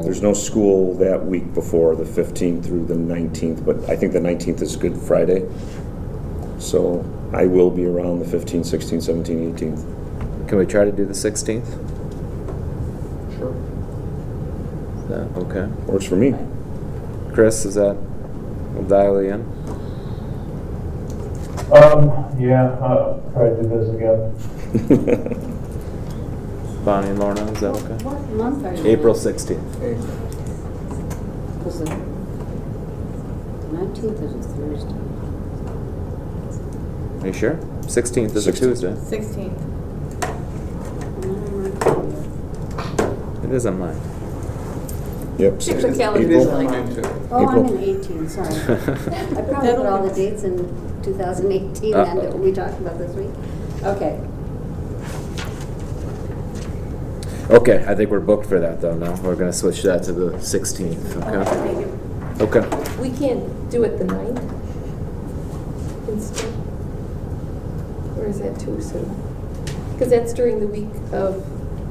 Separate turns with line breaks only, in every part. There's no school that week before, the 15th through the 19th, but I think the 19th is Good Friday. So I will be around the 15th, 16th, 17th, 18th.
Can we try to do the 16th? Sure. okay.
Works for me.
Chris, is that, we'll dial you in?
Um, yeah, I'll try to do this again.
Bonnie and Lorna, is that okay?
What month are you?
April 16th.
Because the nineteenth is a Thursday.
Are you sure? 16th is a
16th.
Tuesday.
16th.
It is on mine.
Yep.
Check the
16th.
calendar
April.
visually.
Oh, I'm
April.
in eighteen, sorry. I probably put all the dates in two thousand eighteen then that we talked about this week. Okay,
Okay, I think we're booked for that though now. We're gonna switch that to the 16th, okay? Okay.
We can't do it the 9th instead? Or is that too soon? Because that's during the week of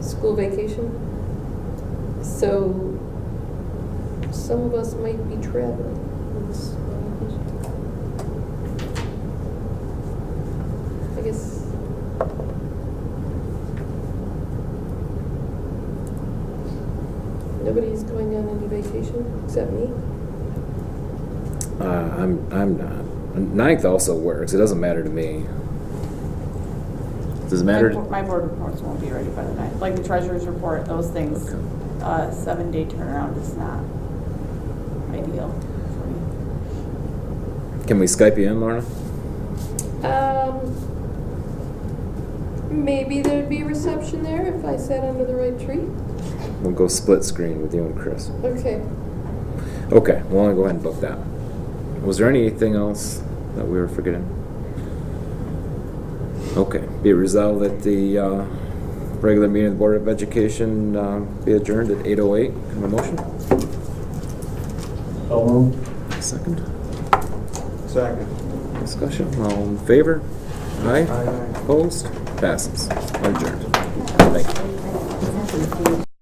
school vacation. So some of us might be traveling. on this vacation. I guess, nobody's going on any vacation except me?
Uh, I'm, I'm not. Ninth also works. It doesn't matter to me. Does it matter?
My bo-
to-
My board reports won't be ready by the night, like the treasurer's report, those things,
Okay.
uh, seven-day turnaround is not ideal for me.
Can we Skype you in, Lorna?
Um, maybe there'd be reception there if I sat under the right tree.
We'll go split screen with you and Chris.
Okay.
Okay, we'll only go ahead and book that. Was there anything else that we were forgetting? Okay, be it resolved that the uh, regular meeting of the Board of Education uh, be adjourned at 8:08. Can I Have a motion?
So moved.
Second.
Second.
Discussion, all in favor? Aye?
Aye.
Opposed? Passes. Adjourned. Thank you.
That's a Thursday.